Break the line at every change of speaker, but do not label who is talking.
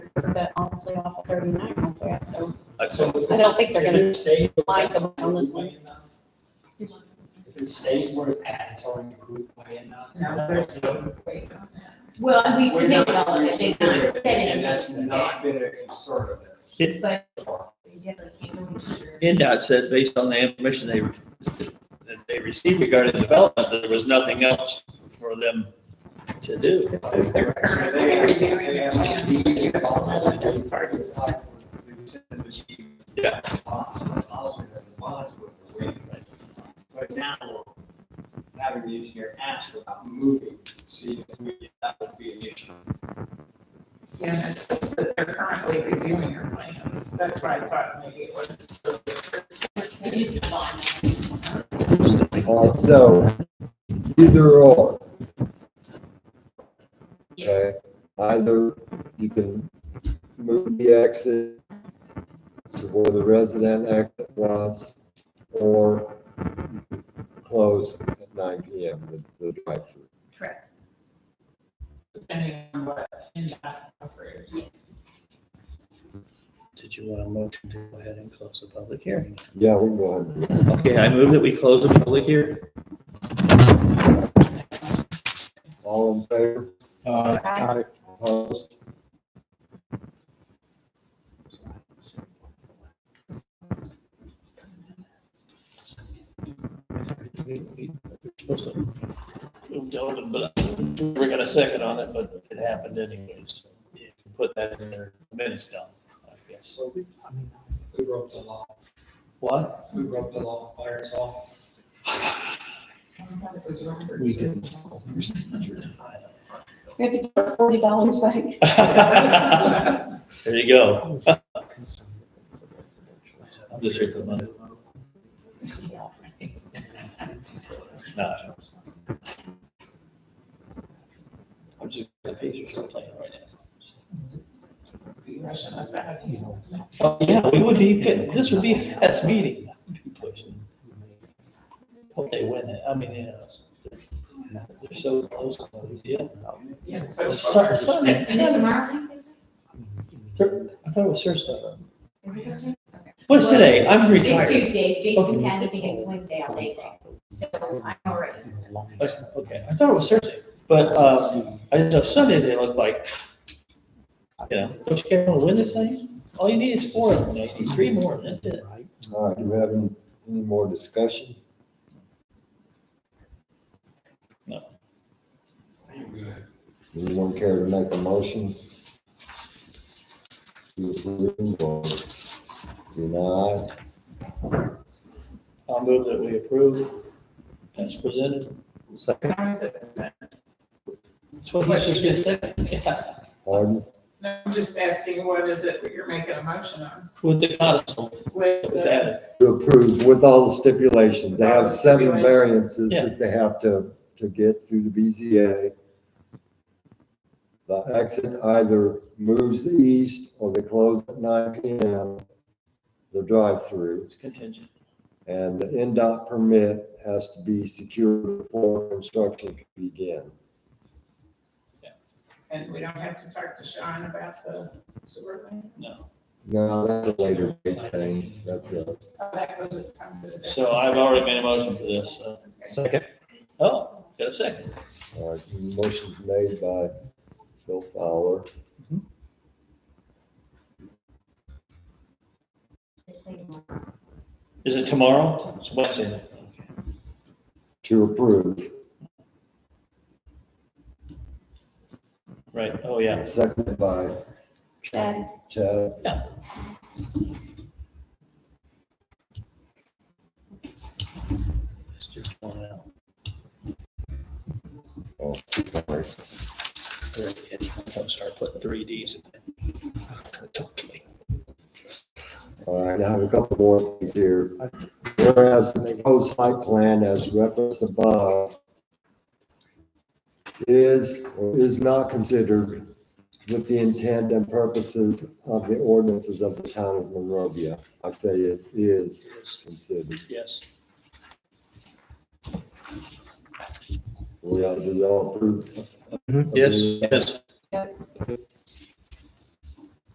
curve, but honestly off of thirty-nine real quick, so I
I
don't think they're gonna lie to me on this one.
If it stays where it's at, it's already approved by enough.
No, there's-
Well, and we
We're not-
submitted all of it, they not
we're-
said it.
And that's not been a concern of theirs.
It-
But
NDOT said based on the information they, that they received regarding development, that there was nothing else for them to do.
This is their
So
curve.
they-
They're
they
reviewing
asked
their
me to be involved in
plans.
this part of the project. We sent them the sheet.
Yeah.
Bonds, but also the bonds were the way, but- But now, we're having the engineer ask about moving, see if we, that would be an issue.
Yeah, it says that they're currently reviewing your plans. That's why I thought maybe it was.
It is a lot.
Uh, so, either or, okay?
Yes,
Either you can move the exit to where the resident exit was, or you can close at nine P M, the, the drive-through.
Correct. Depending on what NDOT offers.
yes.
Did you want a motion to go ahead and close the public hearing?
Yeah, we can go ahead. and do
Okay, I move that we close the public hearing.
that. All in favor?
Aye.
Opposed?
We're gonna second on it, but it happened anyways. You can Put that in their minutes down, I guess.
So, I mean, we broke the law,
What?
we broke the law, fire us off.
We didn't.
We have to give our forty dollars back.
There you go. I'm just here for the money. No. I'm just gonna pay you for playing right
Be rushing us out of here.
now. Yeah, we would be, this would be a fast meeting. Hope they win it. I mean, yeah. They're so close. Yeah.
Yeah, so.
Sun- Sun-
And then
Sun-
tomorrow,
Thur- I thought it was Thursday.
is it okay?
What's today? I'm
It's
retired.
Tuesday, Jason's had anything, it's Wednesday, I'll make it. So I'm all right.
Okay, I thought it was Thursday, but, uh, I know Sunday they look like, you know, don't you care to win this thing? All you need is four of them, you need three more, and that's it.
All right, do we have any, any more discussion?
No.
Anyone care to make a motion? To approve or deny?
I'll move that we approve as presented. Second.
How is it?
That's what he was gonna say, yeah,
Pardon?
No, I'm just asking, what is it that you're making a motion on?
with the codicil
With
that was
the-
added.
To approve with all the stipulations. They have seven variances
Yeah.
that they have to, to get through the BZA. The exit either moves east or they close at nine PM, the drive-through.
It's contingent.
And the NDOT permit has to be secured before construction can begin.
And we don't have to talk to Sean about the sewer thing?
No.
No, that's a later date thing. That's a,
Oh, that goes at times of the day.
So I've already made a motion for this, so.
Second.
Oh, got a second.
uh, motion's made by Bill Fowler.
Is it tomorrow? It's Wednesday.
to approve.
Right, oh, yeah.
Seconded by
Chad.
Chad.
Yeah. It's just one out.
Oh, sorry.
Very catchy. Don't start putting three Ds in it.
All right, I have a couple more things here. Whereas the proposed site plan as referenced above is or is not considered with the intent and purposes of the ordinances of the town of Monrovia. I say it is considered.
Yes,
We all, do y'all approve?
yes, yes.